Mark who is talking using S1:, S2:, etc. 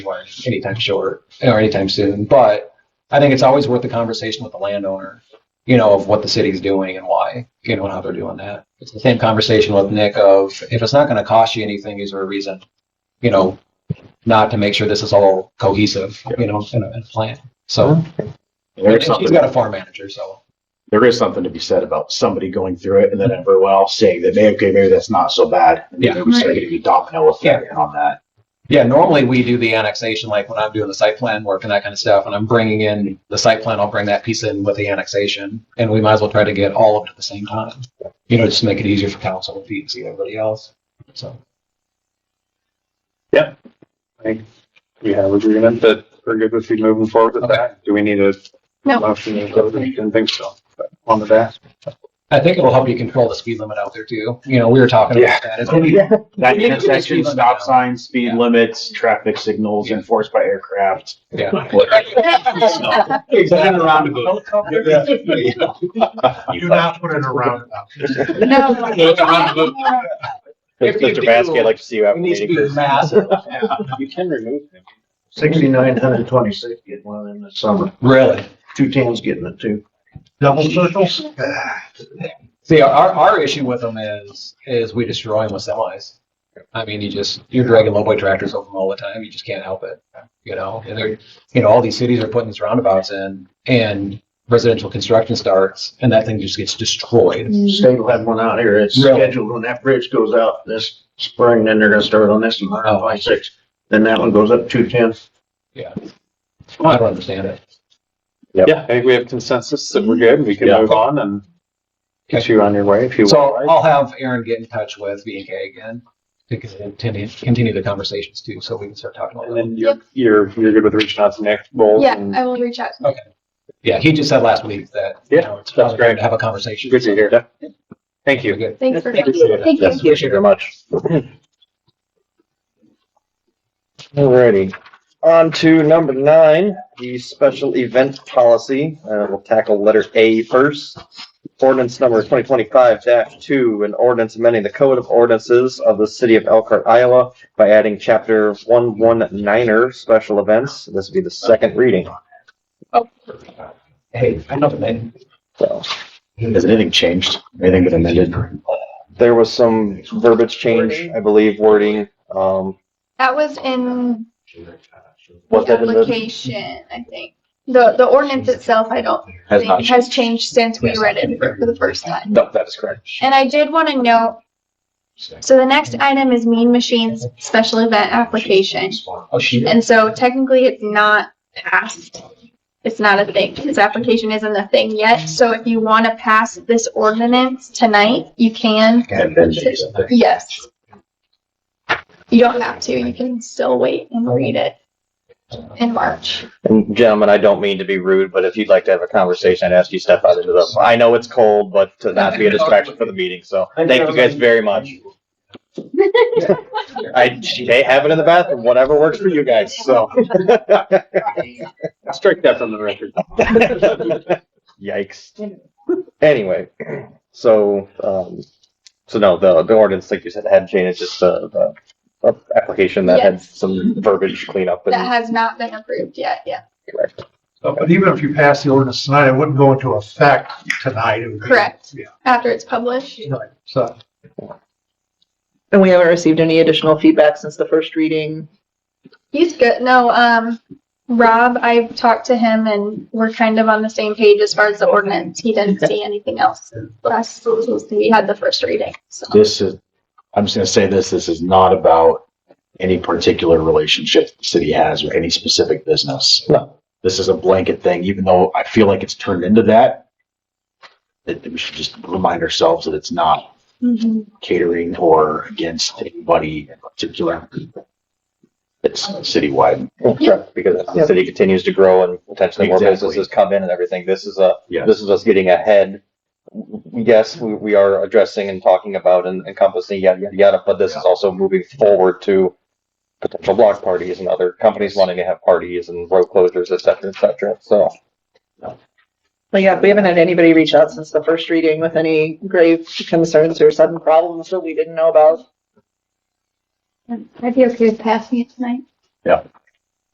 S1: anywhere anytime short or anytime soon. But I think it's always worth the conversation with the landowner, you know, of what the city's doing and why, you know, and how they're doing that. It's the same conversation with Nick of if it's not going to cost you anything, is there a reason, you know, not to make sure this is all cohesive, you know, in a, in a plan. So
S2: There's
S1: and
S2: something,
S1: she's got a farm manager, so
S2: there is something to be said about somebody going through it and then everyone else saying that, maybe, okay, maybe that's not so bad. And
S1: Yeah.
S2: then we start getting a domino effect on that.
S1: yeah. Normally we do the annexation, like when I'm doing the site plan work and that kind of stuff, and I'm bringing in the site plan. I'll bring that piece in with the annexation, and we might as well try to get all of it at the same time. You know, just make it easier for council and see see everybody else. So
S3: we have agreement that we're good with you moving forward with
S1: Okay.
S3: that. Do we need a
S4: No.
S3: motion? to vote? I didn't think so. but On the back.
S1: I think it'll help you control the speed limit out there too. You know, we were talking
S2: Yeah.
S1: about that. It's gonna be-
S2: That
S1: We need to get
S2: intersection,
S1: speed limit
S2: stop
S1: down.
S2: signs, speed
S1: Yeah.
S2: limits, traffic signals
S1: Yeah.
S2: enforced by aircraft.
S1: yeah.
S5: Exactly. Roundabout. You do not put it in a roundabout.
S4: No.
S1: If you
S2: Mr. Baskin,
S1: do-
S2: I'd like to see you
S1: It
S2: after
S1: needs to
S2: meeting
S1: be
S2: this.
S1: massive.
S6: You can remove them.
S7: Sixty-nine hundred twenty-six, get one of them this summer.
S1: Really.
S7: Two towns getting it too.
S5: Double circles?
S1: See, our, our issue with them is, is we destroy them with semis. I mean, you just, you're dragging lowboy tractors over them all the time. You just can't help it, you know? And they're, you know, all these cities are putting these roundabouts in and residential construction starts and that thing just gets destroyed.
S7: State will have one out here. It's
S1: Really?
S7: scheduled when that bridge goes out this spring, then they're gonna start on this one
S1: Oh.
S7: hundred twenty-six. Then that one goes up two ten.
S1: I don't understand it.
S3: Yeah, I think we have consensus that we're good. We can
S2: Yeah.
S3: move on and get you on your way if you want.
S1: So I'll have Aaron get in touch with V and K again to continue, continue the conversations too, so we can start talking about
S3: And
S1: that.
S3: then you're, you're, you're good with reaching out to Nick Bowles
S4: Yeah,
S3: and
S4: I will reach out.
S1: Yeah, he just said last week that, you
S3: Yeah,
S1: know, it's probably
S3: that's great.
S1: good to have a conversation.
S3: good to hear. Thank you.
S1: You're good.
S4: Thanks for.
S1: Thank you.
S4: Thank you.
S2: Yes, Thank you very much.
S6: Alrighty, on to number nine, the special event policy. Uh, we'll tackle letter A first. Ordinance number twenty twenty-five two, an ordinance amending the code of ordinances of the city of Elkhart, Iowa by adding chapter one one niner special events. This would be the second reading.
S1: Hey, I know the name.
S6: So
S2: Has anything changed? Anything been amended?
S6: there was some verbiage change, I believe, wording. Um,
S4: That was in
S6: was
S4: the
S6: that in the?
S4: application, I think. The, the ordinance itself, I don't
S6: Has not
S4: think has changed since we read it for the first time.
S6: No, that is correct.
S4: And I did want to note, so the next item is Mean Machines Special Event Application.
S1: Oh, she.
S4: And so technically it's not passed. It's not a thing. His application isn't a thing yet. So if you want to pass this ordinance tonight, you can.
S2: Had been changed.
S4: Yes. You don't have to. You can still wait and read it in March.
S6: And gentlemen, I don't mean to be rude, but if you'd like to have a conversation, I'd ask you to step out into the, I know it's cold, but to not be a distraction for the meeting, so thank you guys very much. I, they have it in the bathroom, whatever works for you guys, so.
S3: Strike that from the record.
S6: Yikes. Anyway, so, um, so no, the, the ordinance, like you said, had changed, it's just the, the uh, application that had
S4: Yes.
S6: some verbiage cleanup
S4: That
S6: and
S4: has not been approved yet, yeah.
S6: correct.
S5: Uh, But even if you pass the ordinance tonight, it wouldn't go into effect tonight. It would be-
S4: Correct.
S5: Yeah,
S4: After it's published.
S5: right. So
S8: And we haven't received any additional feedback since the first reading.
S4: He's good. No, um, Rob, I talked to him and we're kind of on the same page as far as the ordinance. He didn't see anything else. Last, we had the first reading, so.
S2: This is, I'm just gonna say this, this is not about any particular relationship the city has with any specific business.
S6: No.
S2: This is a blanket thing, even though I feel like it's turned into that. That we should just remind ourselves that it's not
S4: Mm-hmm.
S2: catering or against anybody in particular. It's citywide.
S4: Yeah.
S6: Because as the city continues to grow and potentially more
S2: Exactly.
S6: businesses come in and everything, this is a,
S2: Yes.
S6: this is us getting ahead. Yes, we, we are addressing and talking about and encompassing yada, yada, yada, but this is also moving forward to potential block parties and other companies wanting to have parties and road closures, et cetera, et cetera, so.
S8: But yeah, we haven't had anybody reach out since the first reading with any grave concerns or sudden problems that we didn't know about.
S4: I'd be okay with passing it tonight.
S2: Yeah.